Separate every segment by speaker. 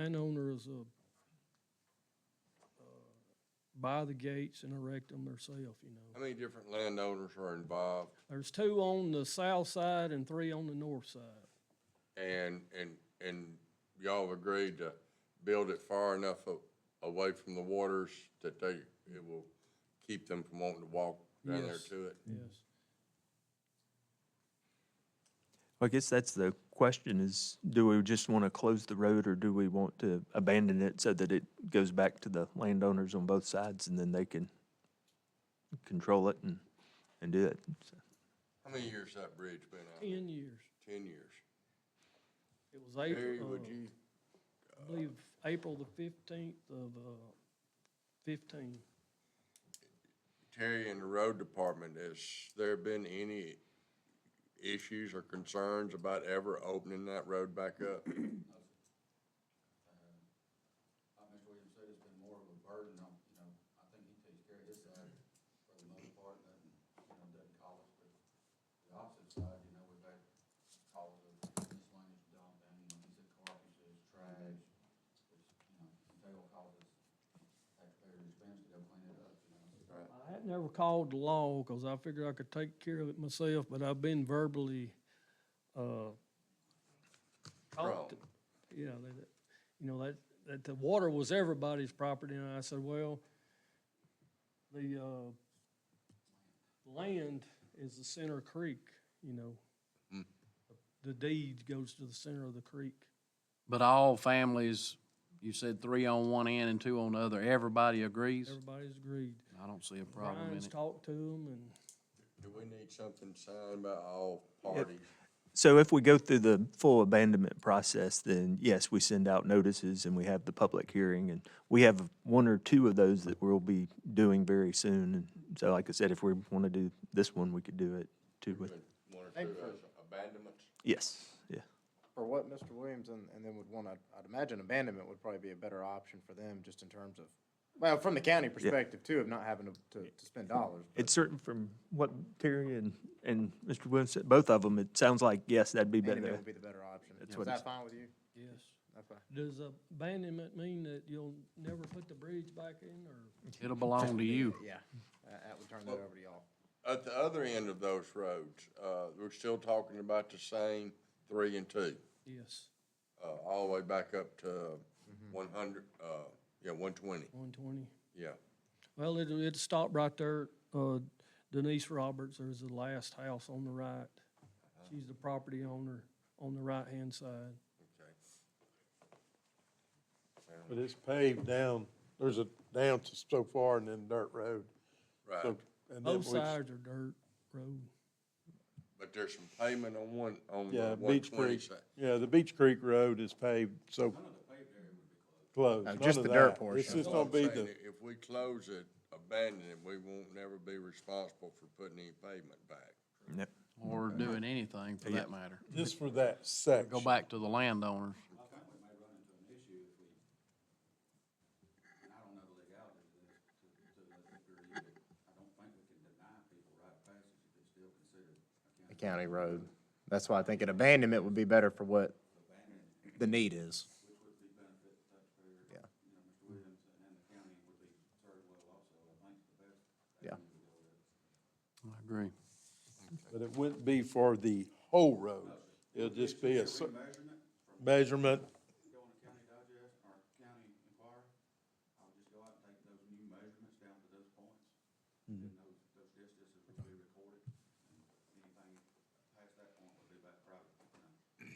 Speaker 1: is, uh, uh, buy the gates and erect them themselves, you know.
Speaker 2: How many different landowners are involved?
Speaker 1: There's two on the south side and three on the north side.
Speaker 2: And, and, and y'all have agreed to build it far enough a- away from the waters that they, it will keep them from wanting to walk down there
Speaker 1: Yes.
Speaker 2: to it?
Speaker 1: Yes.
Speaker 3: I guess that's the question is, do we just want to close the road or do we want to abandon it so that it goes back to the landowners on both sides and then they can control it and, and do it? So,
Speaker 2: How many years that bridge been out? there?
Speaker 1: Ten years.
Speaker 2: Ten years.
Speaker 1: It was
Speaker 2: Harry, would
Speaker 1: April, uh,
Speaker 2: you, uh,
Speaker 1: I believe, April the fifteenth of, uh, fifteen.
Speaker 2: Terry in the road department, has there been any issues or concerns about ever opening that road back up?
Speaker 4: Like Mr. Williams said, it's been more of a burden on, you know, I think he takes care of his side for the most part, and, you know, doesn't call us, but the opposite side, you know, we've had calls of miscellaneous dumping, you know, he said carpet, he says trash, which, you know, they will call us, taxpayer expense to go clean it up, you know.
Speaker 1: I had never called the law because I figured I could take care of it myself, but I've been verbally, uh,
Speaker 2: Wrong.
Speaker 1: talked to- yeah, that, that- you know, that, that the water was everybody's property, and I said, well, the, uh, land is the center of creek, you know.
Speaker 5: Hmm.
Speaker 2: Mm.
Speaker 1: The deed goes to the center of the creek.
Speaker 5: But all families, you said three on one end and two on the other, everybody agrees?
Speaker 1: Everybody's agreed.
Speaker 5: I don't see a problem in
Speaker 1: Brian's
Speaker 5: it.
Speaker 1: talked to them, and
Speaker 2: Do we need something signed by all parties?
Speaker 3: So if we go through the full abandonment process, then yes, we send out notices and we have the public hearing. And we have one or two of those that we'll be doing very soon. And so like I said, if we want to do this one, we could do it too with,
Speaker 2: One or two as abandonments?
Speaker 3: yes, yeah.
Speaker 6: For what Mr. Williams and, and then would want, I'd, I'd imagine abandonment would probably be a better option for them, just in terms of, well, from the county perspective too, of not having to, to, to spend dollars. but-
Speaker 3: It's certain from what Terry and, and Mr. Williams said, both of them, it sounds like, yes, that'd be
Speaker 6: Abandonment
Speaker 3: better.
Speaker 6: would be the better option.
Speaker 3: That's
Speaker 6: Is
Speaker 3: what
Speaker 6: that
Speaker 3: it's-
Speaker 6: fine with you?
Speaker 1: yes.
Speaker 6: That's fine.
Speaker 1: Does abandonment mean that you'll never put the bridge back in, or?
Speaker 5: It'll belong to you.
Speaker 6: Yeah, that, that would turn that over to y'all.
Speaker 2: At the other end of those roads, uh, we're still talking about the same three and two,
Speaker 1: Yes,
Speaker 2: uh, all the way back up to
Speaker 7: Mm-hmm.
Speaker 2: one hundred, uh, yeah, one twenty,
Speaker 1: one twenty.
Speaker 2: yeah.
Speaker 1: Well, it, it stopped right there. Uh, Denise Roberts, there's the last house on the right. She's the property owner on the right-hand side.
Speaker 2: Okay.
Speaker 7: But it's paved down, there's a, down to so far and then dirt road.
Speaker 2: Right,
Speaker 7: So- and then
Speaker 1: Both
Speaker 7: we-
Speaker 1: sides are dirt road.
Speaker 2: but there's some pavement on one, on
Speaker 7: Yeah,
Speaker 2: the one
Speaker 7: Beach
Speaker 2: twenty
Speaker 7: Creek,
Speaker 2: side.
Speaker 7: yeah, the Beach Creek Road is paved, so. Closed.
Speaker 6: No,
Speaker 7: none
Speaker 6: Uh, just
Speaker 7: of
Speaker 6: the dirt
Speaker 7: that. It's
Speaker 6: portion.
Speaker 7: just
Speaker 2: Well,
Speaker 7: gonna
Speaker 2: I'm
Speaker 7: be
Speaker 2: saying
Speaker 7: the,
Speaker 2: i- If we close it, abandon it, we won't never be responsible for putting any pavement back.
Speaker 3: Yep.
Speaker 5: Or doing anything for that matter.
Speaker 7: just for that
Speaker 5: Go
Speaker 7: section.
Speaker 5: back to the landowners.
Speaker 4: I think we may run into an issue if we, and I don't know the legalities of this to, to the degree, but I don't think we can deny people right passage if it's still considered
Speaker 6: A county road. That's why I think an abandonment would be better for what the need is.
Speaker 5: I agree.
Speaker 7: But it wouldn't be for the whole road. It'll just be a cer- measurement,
Speaker 4: go on the county digest or county inquiry, I would just go out and take those new measurements down to those points. And those, those distances would be recorded, and anything past that point would be back private, you know,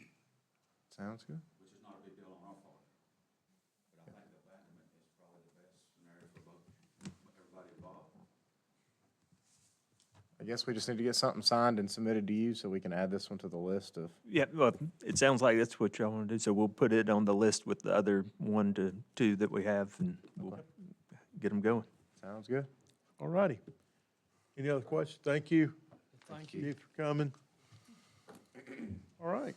Speaker 6: Sounds good.
Speaker 4: which is not a big deal on our part. But I think abandonment is probably the best scenario for both, everybody involved.
Speaker 6: I guess we just need to get something signed and submitted to you so we can add this one to the list of.
Speaker 3: Yeah, well, it sounds like that's what y'all want to do, so we'll put it on the list with the other one to two that we have and we'll get them going.
Speaker 6: Sounds good.
Speaker 7: all righty. Any other questions? Thank you.
Speaker 1: Thank you.
Speaker 7: Thank you for coming. All right.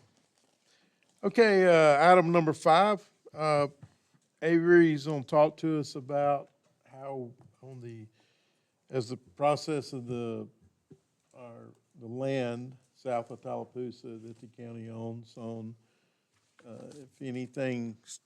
Speaker 7: Okay, uh, item number five, uh, Avery's gonna talk to us about how on the, as the process of the, our, the land south of Tallapoosa that the county owns on, uh, if anything s-